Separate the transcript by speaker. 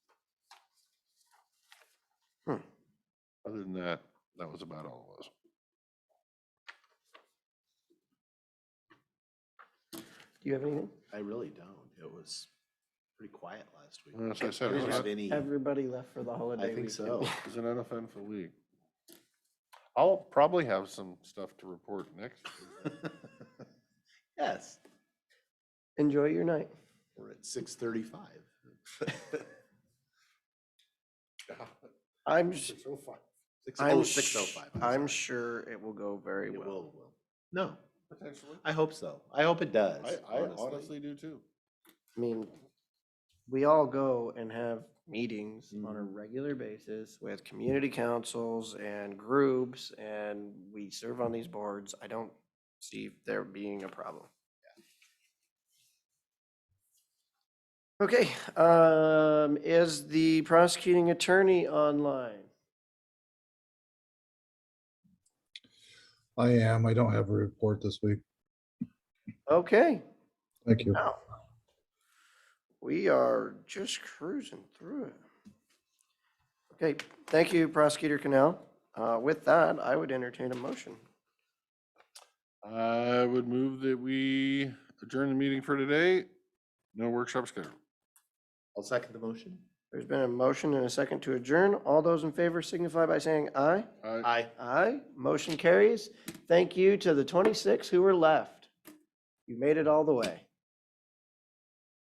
Speaker 1: Other than that, that was about all it was.
Speaker 2: Do you have anything?
Speaker 3: I really don't. It was pretty quiet last week.
Speaker 1: Well, That's what I
Speaker 3: I
Speaker 1: said.
Speaker 3: didn't have
Speaker 1: Isn't
Speaker 3: any,
Speaker 2: Everybody left for the holiday.
Speaker 3: I think
Speaker 2: weekend.
Speaker 3: so.
Speaker 1: an uneventful week. I'll probably have some stuff to report next.
Speaker 3: Yes,
Speaker 2: Enjoy your night.
Speaker 3: we're at six thirty-five.
Speaker 2: I'm, s-
Speaker 3: oh five. Six
Speaker 2: I'm,
Speaker 3: oh, six oh
Speaker 2: sh-
Speaker 3: five.
Speaker 2: I'm sure it will go very
Speaker 3: It will,
Speaker 2: well.
Speaker 3: will. No,
Speaker 1: Potentially.
Speaker 3: I hope so. I hope it does.
Speaker 1: I, I honestly do too.
Speaker 2: I mean, we all go and have meetings on a
Speaker 3: Mhm.
Speaker 2: regular basis with community councils and groups, and we serve on these boards. I don't see there being a problem. Okay, um, is the prosecuting attorney online?
Speaker 4: I am. I don't have a report this week.
Speaker 2: Okay,
Speaker 4: Thank you.
Speaker 2: now, we are just cruising through it. Okay, thank you, Prosecutor Canal. Uh, With that, I would entertain a motion.
Speaker 1: I would move that we adjourn the meeting for today. No workshop scheduled.
Speaker 3: I'll second the motion.
Speaker 2: There's been a motion and a second to adjourn. All those in favor signify by saying aye.
Speaker 1: I-
Speaker 3: Aye.
Speaker 2: Aye, motion carries. Thank you to the 26 who were left. You made it all the way.